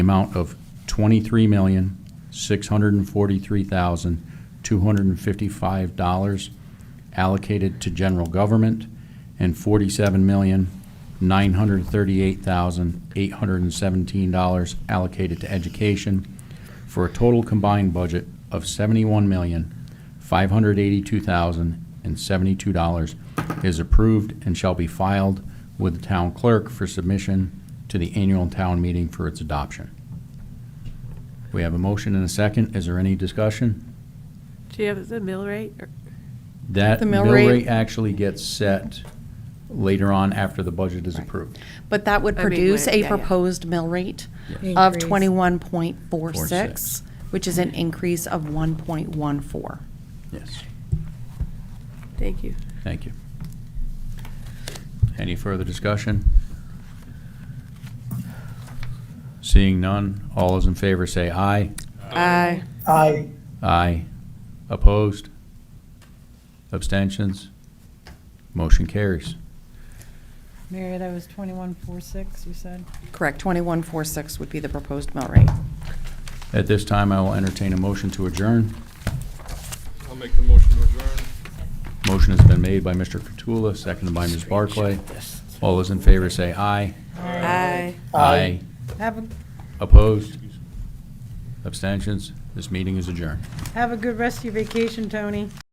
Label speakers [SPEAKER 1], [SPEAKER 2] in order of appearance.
[SPEAKER 1] amount of twenty-three million, six hundred and forty-three thousand, two hundred and fifty-five dollars allocated to general government and forty-seven million, nine hundred and thirty-eight thousand, eight hundred and seventeen dollars allocated to education for a total combined budget of seventy-one million, five hundred eighty-two thousand and seventy-two dollars is approved and shall be filed with the town clerk for submission to the annual town meeting for its adoption. We have a motion and a second. Is there any discussion?
[SPEAKER 2] Do you have the mill rate? or-
[SPEAKER 1] That
[SPEAKER 3] The mill
[SPEAKER 1] mill
[SPEAKER 3] rate-
[SPEAKER 1] rate actually gets set later on after the budget is approved.
[SPEAKER 3] But that would
[SPEAKER 2] I mean,
[SPEAKER 3] produce
[SPEAKER 2] when-
[SPEAKER 3] a
[SPEAKER 2] yeah, yeah.
[SPEAKER 3] proposed mill rate
[SPEAKER 4] Yes.
[SPEAKER 3] of
[SPEAKER 4] Increase.
[SPEAKER 3] twenty-one point four six,
[SPEAKER 1] 46.
[SPEAKER 3] which is an increase of one point one four.
[SPEAKER 1] Yes.
[SPEAKER 2] Thank you.
[SPEAKER 1] Thank you. Any further discussion? Seeing none, all those in favor say aye.
[SPEAKER 3] Aye.
[SPEAKER 5] aye,
[SPEAKER 1] Aye. Opposed? Abstentions? Motion carries.
[SPEAKER 4] Mary, that was twenty-one, four, six, you said?
[SPEAKER 3] Correct, twenty-one four six would be the proposed mill rate.
[SPEAKER 1] At this time, I will entertain a motion to adjourn.
[SPEAKER 6] I'll make the motion to adjourn.
[SPEAKER 1] Motion has been made by Mr. Cottula, seconded by Ms. Barclay. All those in favor say aye.
[SPEAKER 2] Aye.
[SPEAKER 5] Aye.
[SPEAKER 4] Have a,
[SPEAKER 1] Opposed? Abstentions? This meeting is adjourned.
[SPEAKER 4] have a good rest of your vacation, Tony.